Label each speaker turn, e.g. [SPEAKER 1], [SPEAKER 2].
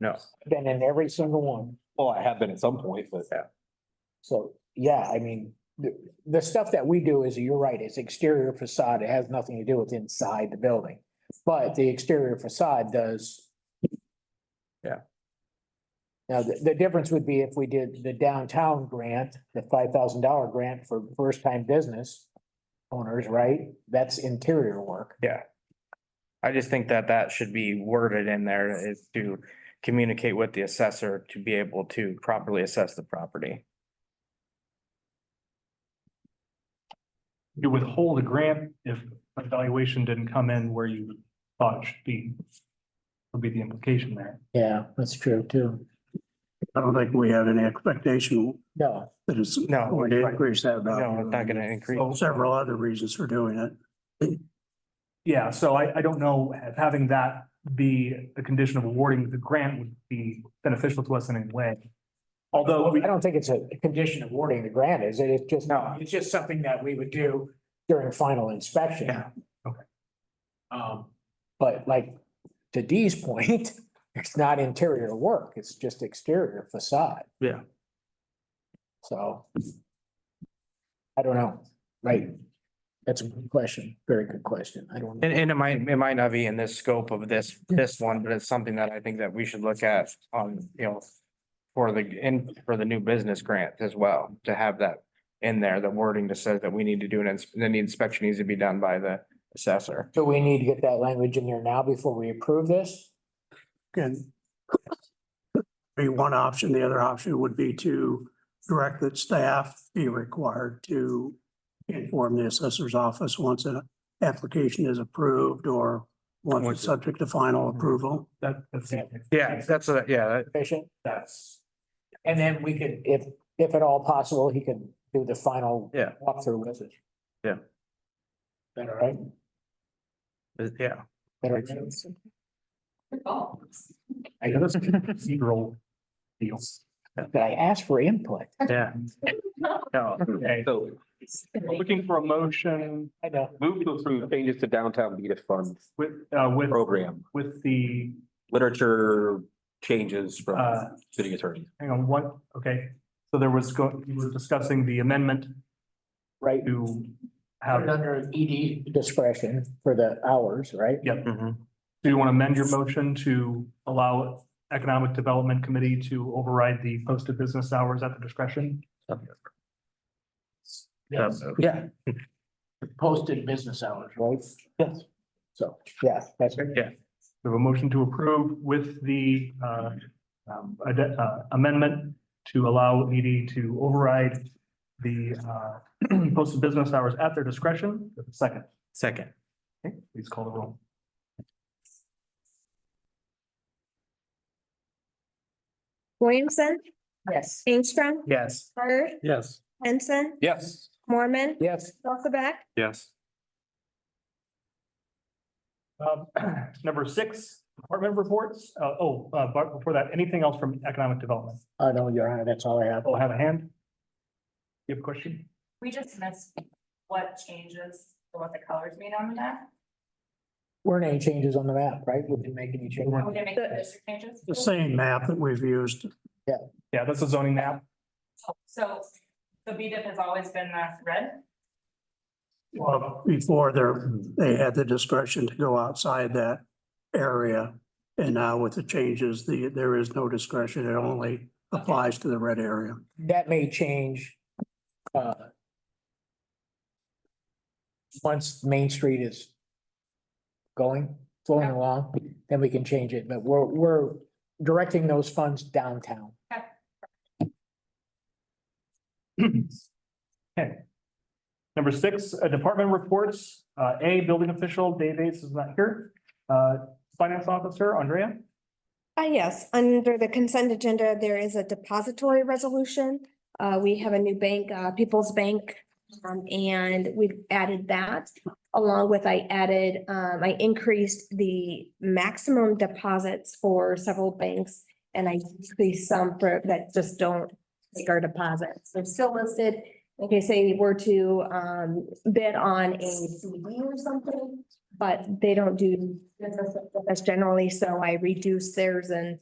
[SPEAKER 1] No.
[SPEAKER 2] Been in every single one.
[SPEAKER 3] Well, I have been at some point, but
[SPEAKER 2] So, yeah, I mean, the, the stuff that we do is, you're right, it's exterior facade. It has nothing to do with inside the building. But the exterior facade does.
[SPEAKER 1] Yeah.
[SPEAKER 2] Now, the, the difference would be if we did the downtown grant, the five thousand dollar grant for first time business owners, right? That's interior work.
[SPEAKER 1] I just think that that should be worded in there is to communicate with the assessor to be able to properly assess the property.
[SPEAKER 4] you withhold a grant if a valuation didn't come in where you thought it should be. Would be the implication there.
[SPEAKER 2] Yeah, that's true too.
[SPEAKER 5] I don't think we have any expectation
[SPEAKER 2] No,
[SPEAKER 5] that it's
[SPEAKER 1] No.
[SPEAKER 5] going to increase that value.
[SPEAKER 1] No, Mm-hmm. Oh, it's not gonna increase.
[SPEAKER 5] Well, Several other reasons for doing it.
[SPEAKER 4] Yeah, so I, I don't know if having that be a condition of awarding the grant would be beneficial to us in any way. Although, we-
[SPEAKER 2] I don't think it's a condition of awarding the grant, is it? It's just,
[SPEAKER 1] No.
[SPEAKER 2] it's just something that we would do during final inspection.
[SPEAKER 4] Yeah, okay.
[SPEAKER 2] Um, but like, to Dee's point, it's not interior work, it's just exterior facade.
[SPEAKER 1] Yeah.
[SPEAKER 2] So. I don't know, right? That's a good question, very good question. I don't.
[SPEAKER 1] And, and it might, it might not be in this scope of this, this one, but it's something that I think that we should look at on, you know, for the, and for the new business grant as well, to have that in there, the wording that says that we need to do an, ins- then the inspection needs to be done by the assessor.
[SPEAKER 2] Do we need to get that language in there now before we approve this?
[SPEAKER 5] Can be one option. The other option would be to direct that staff be required to inform the assessor's office once an application is approved or
[SPEAKER 1] Once
[SPEAKER 5] once
[SPEAKER 1] it- Mm-hmm.
[SPEAKER 5] it's subject to final approval.
[SPEAKER 4] that, that's.
[SPEAKER 1] Yeah, that's, a- yeah,
[SPEAKER 2] Efficient?
[SPEAKER 4] That's,
[SPEAKER 2] And then we could, if, if at all possible, he could do the final.
[SPEAKER 1] Yeah.
[SPEAKER 2] Walkthrough with it.
[SPEAKER 1] Yeah.
[SPEAKER 2] Better, right?
[SPEAKER 1] that- Uh, yeah.
[SPEAKER 2] Better.
[SPEAKER 4] I guess that's a procedural deal.
[SPEAKER 2] Did I ask for input?
[SPEAKER 1] Yeah. No,
[SPEAKER 4] Okay,
[SPEAKER 6] So
[SPEAKER 4] looking for a motion
[SPEAKER 2] I know.
[SPEAKER 6] move to approve changes to downtown Beatus Fund
[SPEAKER 4] with, uh, with,
[SPEAKER 6] program,
[SPEAKER 4] with the,
[SPEAKER 6] literature changes
[SPEAKER 4] uh,
[SPEAKER 6] from city attorney.
[SPEAKER 4] hang on, what, okay. So there was, go- we were discussing the amendment
[SPEAKER 2] Right,
[SPEAKER 4] to have.
[SPEAKER 2] Put it under ED discretion for the hours, right?
[SPEAKER 1] Mhm.
[SPEAKER 4] Do you want to amend your motion to allow Economic Development Committee to override the posted business hours at the discretion?
[SPEAKER 1] Yes.
[SPEAKER 2] Yeah. Posted business hours, right? Yes. So, yeah, that's right.
[SPEAKER 4] We have a motion to approve with the uh, um, ad- uh, amendment to allow ED to override the uh, posted business hours at their discretion. Second,
[SPEAKER 1] Second.
[SPEAKER 4] please call the roll.
[SPEAKER 7] Williamson,
[SPEAKER 2] Yes.
[SPEAKER 7] Ingstrom,
[SPEAKER 1] Yes.
[SPEAKER 7] Bird,
[SPEAKER 4] Yes.
[SPEAKER 7] Henson,
[SPEAKER 6] Yes.
[SPEAKER 7] Mormon,
[SPEAKER 2] Yes,
[SPEAKER 7] Elizabeth,
[SPEAKER 6] Yes.
[SPEAKER 4] Um, Number six, department reports. Uh, Oh, uh, but before that, anything else from Economic Development?
[SPEAKER 2] I know, Your Honor, that's all I have.
[SPEAKER 4] Oh, have a hand? You have a question?
[SPEAKER 8] We just missed what changes, or what the colors mean on the map.
[SPEAKER 2] Weren't any changes on the map, right? We didn't make any changes.
[SPEAKER 8] Are we gonna make the district changes?
[SPEAKER 5] The same map that we've used
[SPEAKER 4] Yeah, that's a zoning map.
[SPEAKER 8] So the B dip has always been that red.
[SPEAKER 5] Well, uh, before there, they had the discretion to go outside that area. And now with the changes, the, there is no discretion. It only applies to the red area.
[SPEAKER 2] that may change. uh, Once Main Street is going, flowing along, then we can change it, but we're, we're directing those funds downtown.
[SPEAKER 4] Number six, uh, department reports. Uh, A, building official, Dave Ace is not here. Uh, finance officer, Andrea.
[SPEAKER 7] Uh, yes, under the consent agenda, there is a depository resolution. Uh, we have a new bank, uh, People's Bank. um, and we've added that along with I added, um, I increased the maximum deposits for several banks. And I increased some for, that just don't take our deposits. They're still listed. In case they were to, um, bid on a CD or something, but they don't do business with us generally, so I reduced theirs and